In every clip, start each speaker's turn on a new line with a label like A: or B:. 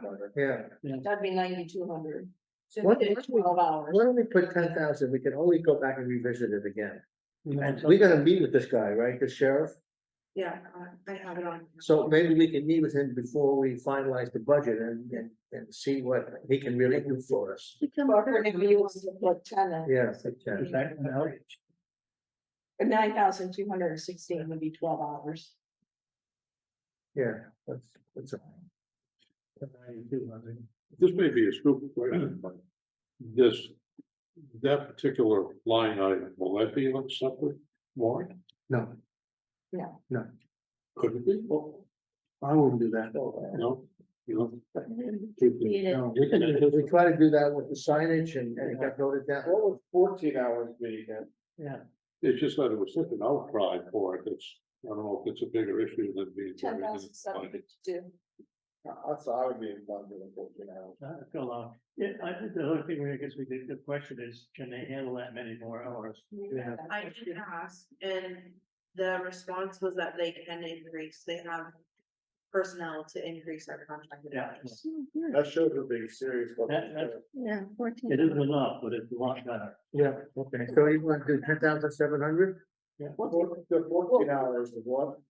A: hundred.
B: yeah.
C: That'd be ninety-two hundred. So
B: What-
C: it's twelve hours.
B: Why don't we put ten thousand? We can always go back and revisit it again.
A: You know,
B: And we're gonna meet with this guy, right? The sheriff?
C: Yeah, I- I have it on.
B: So maybe we can meet with him before we finalize the budget and, and, and see what he can really do for us.
C: Or if you want to put ten in,
B: Yeah, I think
A: is
B: that-
A: that an outage?
C: nine thousand two hundred and sixteen would be twelve hours.
B: yeah, that's, that's. all.
A: Ninety-two hundred.
D: This may be a stupid question, but
C: Hmm.
D: this, that particular line item, will that be on separate warrant?
B: No,
D: Could it be? Well,
B: I wouldn't do that.
D: No, you know.
B: No, we can, we try to do that with the signage and, and it got noted down.
A: What would fourteen hours be then?
D: It's just that it was such an outcry for it, it's, I don't know if it's a bigger issue than being.
C: Ten thousand seven fifty-two.
A: That's, I would be in London in fourteen hours.
E: Uh, go along. Yeah, I think the only thing we, I guess we did, the question is, can they handle that many more hours?
B: Yeah.
F: I did ask, and the response was that they can increase, they have personnel to increase our contracted
E: Yeah.
F: hours.
A: That shows we're being serious. about
E: That-
A: this.
C: Yeah, fourteen.
E: It isn't enough, but it's a lot better.
B: Yeah, okay, so you wanna do ten thousand seven hundred?
A: Four- The fourteen hours of what?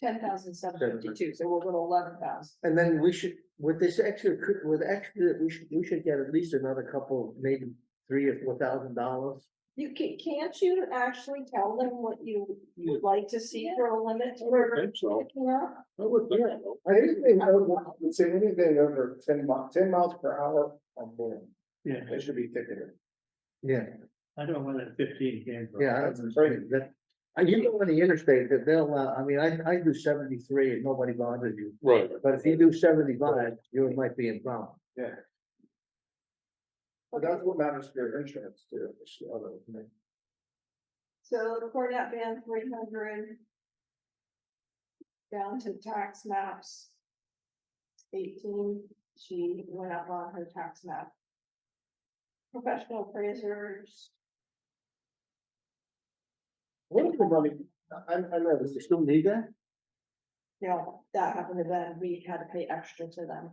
C: Ten thousand seven fifty-two, so we'll go to eleven thousand.
B: And then we should, with this extra, cou- with extra, we should, we should get at least another couple, maybe three or four thousand dollars.
C: You can, can't you actually tell them what you would like to see for a limit? for
D: I think so.
C: picking up?
D: I would think so.
A: I think they know, let's say anything over ten mi- ten miles per hour on board,
E: Yeah,
A: they should be ticketed.
B: Yeah,
E: I don't know where that fifteen came from.
B: yeah, I
A: That's
B: understand
A: crazy.
B: that. And you go on the interstate, that they'll, uh, I mean, I, I do seventy-three and nobody bothers you,
D: Right.
B: but if you do seventy-five, you might be in problem.
A: But that's what matters to your insurance too. is the other thing.
C: So the Cornet band three hundred. Down to tax maps. Eighteen, she went up on her tax map. Professional appraisers,
A: What is the money? I, I know this
B: You
A: is,
B: still need that?
C: you know, that happened to them, we had to pay extra to them.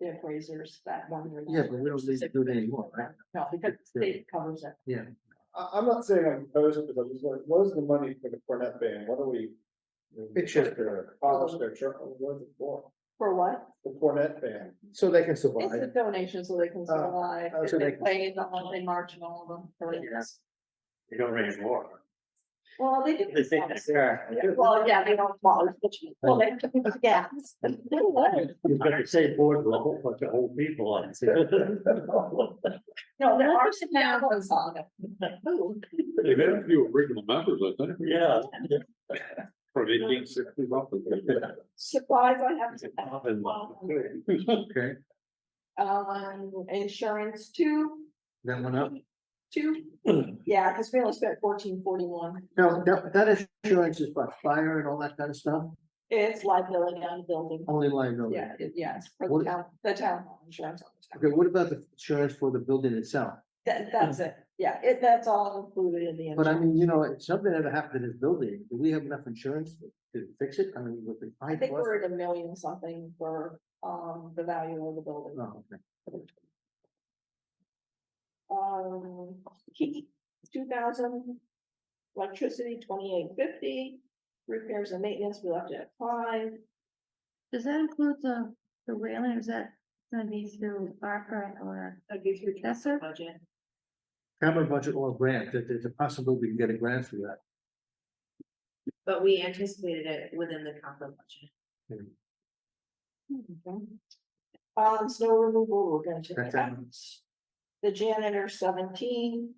C: The appraisers that one. year.
B: Yeah, but we don't need to do it anymore, right?
C: No, because the state covers it.
A: I, I'm not saying I'm opposed to it, but it's like, what is the money for the Cornet Band? What are we?
B: It's just-
A: to Polish their truck, what is it for?
C: For what?
A: The Cornet Band.
B: So they can
C: It's a
B: survive.
C: donation so they can survive.
B: oh,
C: If
B: so they
C: They
B: can-
C: play in the holiday march and all of them. for instance.
E: You don't raise more.
C: Well, they do. themselves. Yeah,
E: You
C: Well, yeah, they don't march, but you, well, they, yeah.
E: better say board with a whole bunch of old people on it.
C: No, there are some bad ones on it. Ooh,
D: They've had a few original members, I think,
E: Yeah.
D: from eighteen sixty something.
C: Supplies I have.
B: Okay,
C: Um, insurance two,
B: that one up.
C: two, yeah, because we only spent fourteen forty-one.
B: Now, that, that insurance is by fire and all that kind of stuff,
C: It's liability on the building.
B: only liability.
C: Yeah, it- yes, for the
B: What-
C: town, the town insurance. on the town.
B: Okay, what about the insurance for the building itself?
C: That, that's it. Yeah, it, that's all included in the.
B: But I
C: insurance.
B: mean, you know, if something ever happened to this building, do we have enough insurance to fix it? I mean, with the.
C: I
B: high
C: think
B: cost-
C: we're at a million something for, um, the value of the building.
B: Oh, okay.
C: Um, heat, two thousand. Electricity, twenty-eight fifty, repairs and maintenance, we left it at five.
G: Does that include the, the whaling, or is that gonna be through ARPA or,
F: That'd be through
G: that's it?
F: budget.
B: Capital budget or grant, there- there's a possibility we can get a grant for that.
F: But we anticipated it within the capital budget.
C: Um, snow removal, we're gonna check
B: That's
C: it out.
B: it.
C: The janitor seventeen.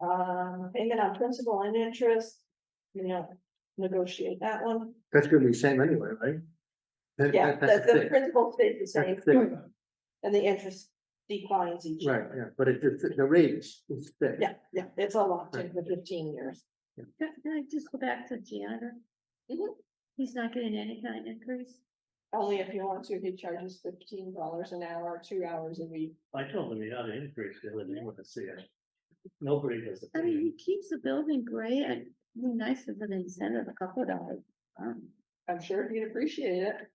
C: Um, payment on principal and interest, you know, negotiate that one.
B: That's gonna be the same anyway, right? That-
C: Yeah,
B: that-
C: the,
B: that's a
C: the
B: fix.
C: principal stays the
B: That's a
C: same
B: fix.
C: and the interest declines each. year.
B: Right, yeah, but it, the the rate is, is fixed.
C: Yeah, yeah, it's a lot,
B: Right.
C: ten to fifteen years.
G: Can can I just go back to janitor?
C: Mhm.
G: He's not getting any kind of increase?
C: Only if you want to, he charges fifteen dollars an hour, two hours a week.
E: I told them you ought to increase it, and they want to see it. Nobody does.
G: I mean, he keeps the building great, and it'd be nice if an incentive, a couple of dollars. um,
C: I'm sure he'd appreciate it.